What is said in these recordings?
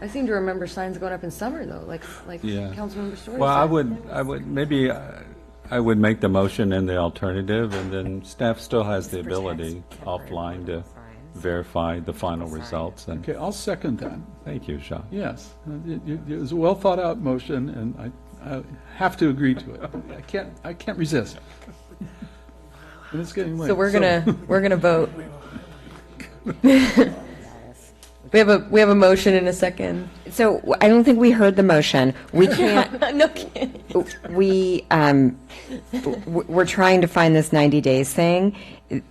I seem to remember signs going up in summer though, like, like Yeah. Councilmember Story Well, I said. would, I would, maybe uh, I would make the motion and the alternative, and then staff still has the ability offline to verify the final results, and, Okay, I'll second that. thank you, Sean. Yes, it, it- it was a well-thought-out motion, and I, I have to agree to it. I can't, I can't resist. And it's getting late. So we're gonna, we're gonna vote. We have a, we have a motion in a second. So w- I don't think we heard the motion. We can't, No kidding. we, um, w- we're trying to find this 90 days thing.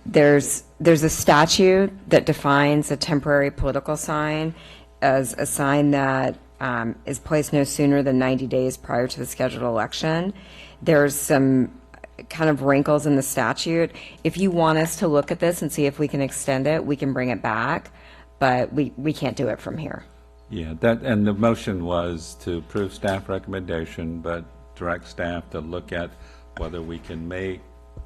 There's, there's a statute that defines a temporary political sign as a sign that um, is placed no sooner than 90 days prior to the scheduled election. There's some kind of wrinkles in the statute. If you want us to look at this and see if we can extend it, we can bring it back, but we, we can't do it from here. Yeah, that, and the motion was to approve staff recommendation, but direct staff to look at whether we can make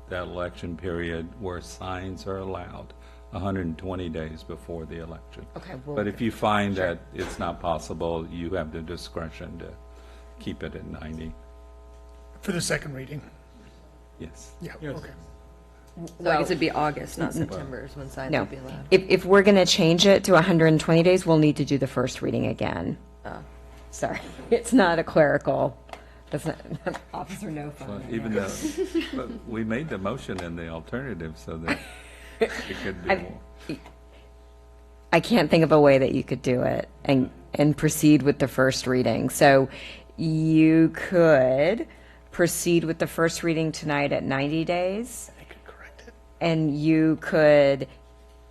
that election period where signs are allowed 120 days before the election. Okay, we'll- But if you find that it's not possible, you have the discretion to keep it at 90. For the second reading? Yes. Yeah, okay. So I guess it'd be August, not September is when signs No. would be allowed. If, if we're going to change it to 120 days, we'll need to do the first reading again. Oh. Sorry, it's not a clerical, that's not, Officer No Well, Fun. Even though, but we made the motion and the alternative so that it could be I- more. I can't think of a way that you could do it and, and proceed with the first reading. So you could proceed with the first reading tonight at 90 days. I could correct it. and you could,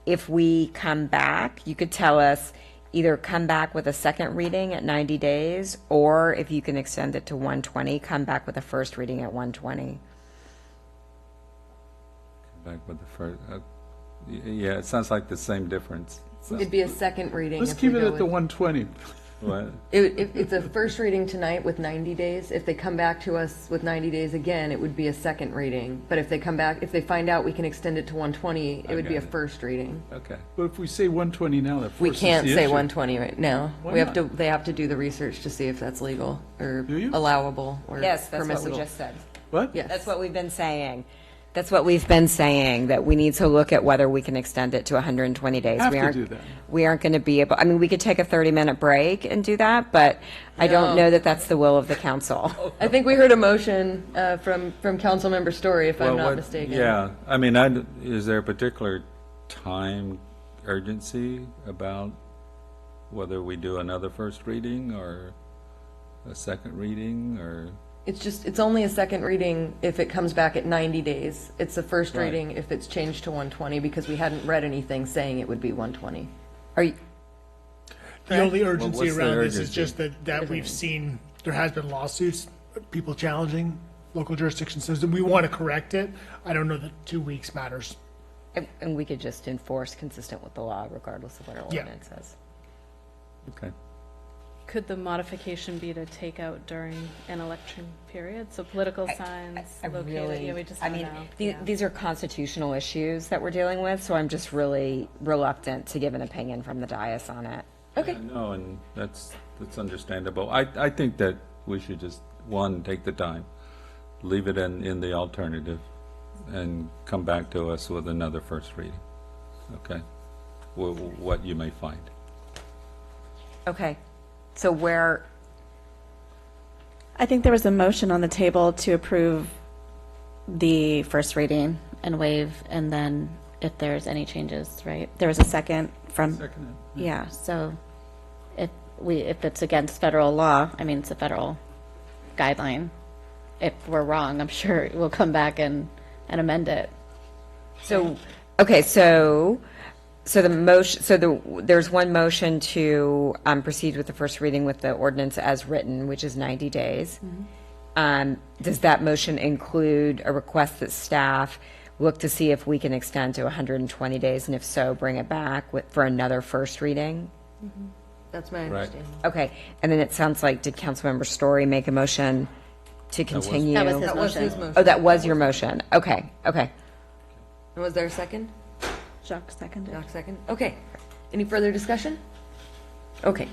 if we come back, you could tell us either come back with a second reading at 90 days, or if you can extend it to 120, come back with a first reading at 120. Back with the first, uh, y- yeah, it sounds like the same difference. so- It'd be a second reading. Let's if we keep it go at the with- 120. What? It would- If, it's a first reading tonight with 90 days, if they come back to us with 90 days again, it would be a second reading. But if they come back, if they find out we can extend it to 120, it would be a got it. first reading. Okay. But if we say 120 now, that We forces the can't say issue. 120 right now. Why We have not? to, they have to do the research to see if that's legal or Do you? allowable or permissible. Yes, that's what we just said. What? Yes. That's what we've been saying. That's what we've been saying, that we need to look at whether we can extend it to 120 days. Have We to aren't- do that. We aren't going to be able, I mean, we could take a 30-minute break and do that, but I don't No. know that that's the will of the council. Oh. I think we heard a motion uh, from, from Councilmember Story, if I'm Well, not what- mistaken. Yeah, I mean, I, is there a particular time urgency about whether we do another first reading or a second reading or? It's just, it's only a second reading if it comes back at 90 days. It's a first Right. reading if it's changed to 120 because we hadn't read anything saying it would be 120. Are you, The only what's urgency the around this is urgency? just that, that we've seen, there has been lawsuits, people challenging local jurisdiction system. We want to correct it. I don't know that two weeks matters. And- And we could just enforce consistent with the law regardless of what our Yeah. ordinance says. Okay. Could the modification be to take out during an election period? So political signs I located, really- yeah, we just I don't mean, know. the- Yeah. these are constitutional issues that we're dealing with, so I'm just really reluctant to give an opinion from the dais on it. Okay. No, and that's, that's understandable. I, I think that we should just, one, take the time, leave it in, in the alternative, and come back to us with another first reading. Okay? Wh- wh- What you may find. Okay, so where, I think there was a motion on the table to approve the first reading and waive, and then if there's any changes, right? There was a second from, Second it. yeah, so if we, if it's against federal law, I mean, it's a federal guideline. If we're wrong, I'm sure we'll come back and, and amend it. so, okay, so, so the motion, so the, there's one motion to um, proceed with the first reading with the ordinance as written, which is 90 days. Mm-hmm. Um, Does that motion include a request that staff look to see if we can extend to 120 days? And if so, bring it back with- for another first reading? That's my understanding. Okay, and then it sounds like, did Councilmember Story make a motion to continue? That was his That was his motion. motion. Oh, that was your motion? Okay, okay. And was there a second? Jacques seconded. Doc second? Okay. Uh, Any further discussion? Okay.